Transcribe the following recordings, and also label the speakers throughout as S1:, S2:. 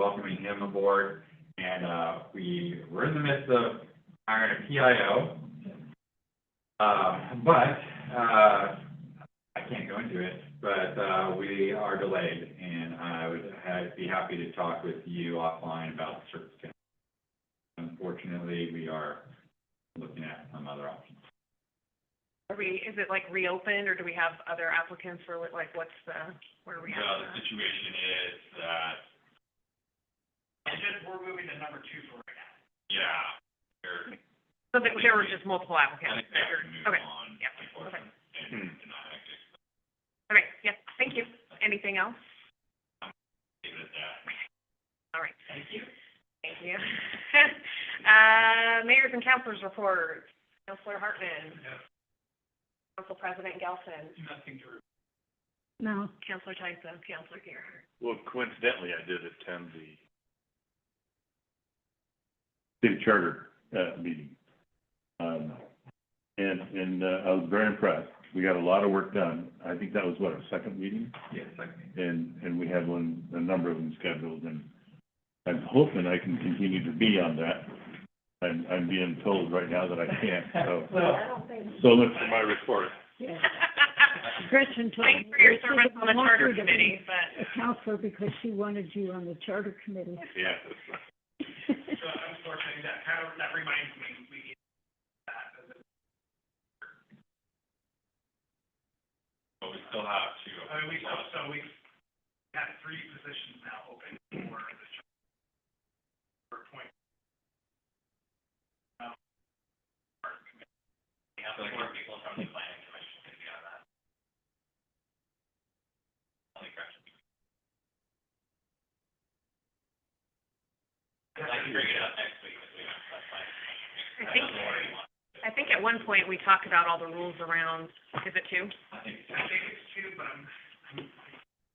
S1: welcoming him aboard. And, uh, we, we're in the midst of hiring a PIO. Uh, but, uh, I can't go into it, but, uh, we are delayed and I would ha- be happy to talk with you offline about the circumstances. Unfortunately, we are looking at some other options.
S2: Are we, is it like reopened, or do we have other applicants, or what- like, what's the, where are we at?
S1: The situation is that
S3: It's just, we're moving to number two for right now.
S1: Yeah, they're,
S2: So there, there were just multiple
S1: I
S2: applicants,
S1: think they have to move
S2: okay,
S1: on,
S2: yeah, Hmm.
S1: unfortunately, and and I have to
S2: okay, yeah, thank you. Anything else?
S1: leave it at that.
S2: All right,
S3: Thank you.
S2: thank you. Uh, mayors and councilors report, Councilor Hartman, Council President Gelson,
S3: Nothing to report.
S4: No.
S2: Councilor Tyson, Councilor Gearhart.
S5: Well, coincidentally, I did attend the city charter, uh, meeting. Um, and, and, uh, I was very impressed. We got a lot of work done. I think that was what, our second meeting?
S1: Yes, I can.
S5: And, and we had one, a number of them scheduled and I'm hoping I can continue to be on that. I'm, I'm being told right now that I can't,
S2: Oh.
S5: so,
S3: Well,
S4: don't think.
S5: so look for my report.
S4: Yeah. Gretchen told me.
S2: Thanks for your
S4: she
S2: service
S4: didn't
S2: on the
S4: want
S2: charter
S4: you to be
S2: committee, but.
S4: A counselor because she wanted you on the charter committee.
S5: Yeah.
S3: so unfortunately, that kind of, that reminds me, we need that. as a-
S1: But we still have to.
S3: I mean, we, so we have three positions now open for the job. For point. um, our committee. We have like more people from the planning commission to be on that. Only correction. I can bring it up next week if we have, that's fine.
S2: I think, I think at one point we talked about all the rules around, is it two?
S1: I think,
S3: I think it's two, but I'm, I'm,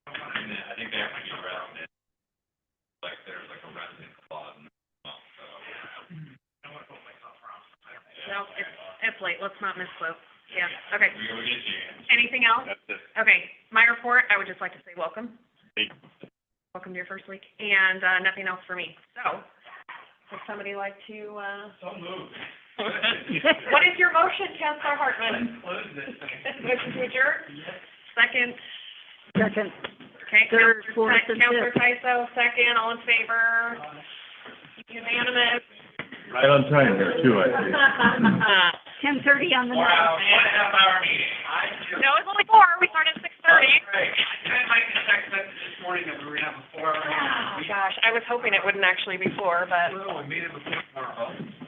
S3: I don't wanna.
S1: I think they have to get resident, like, there's like a resident clause in the law, so.
S3: I don't wanna put myself wrong.
S2: No, It's late, let's not misspoke. Yeah, okay.
S1: We, we get you.
S2: Anything else?
S5: That's it.
S2: Okay, my report, I would just like to say welcome.
S5: Thank
S2: Welcome to your first week, and, uh, nothing else for me. So, would somebody like to, uh,
S3: So moved.
S2: what is your motion, Counselor Hartman?
S3: Close this thing.
S2: Motion to adjourn,
S3: Yes.
S2: second,
S4: Second.
S2: okay,
S4: Third,
S2: Counselor
S4: fourth,
S2: Ty-
S4: and
S2: Counselor Tyso, second, all in favor,
S3: Uh,
S2: unanimous.
S5: Right on time there too, I think.
S2: Uh,
S4: Ten thirty on the
S3: Four
S4: night.
S3: hours, one and a half hour meeting. I just.
S2: No, it's only four, we started at six thirty.
S3: Right. I sent Mike a text message this morning that we were gonna have a four hour
S2: Oh,
S3: meeting.
S2: gosh, I was hoping it wouldn't actually be four, but
S3: Well, we made it before tomorrow.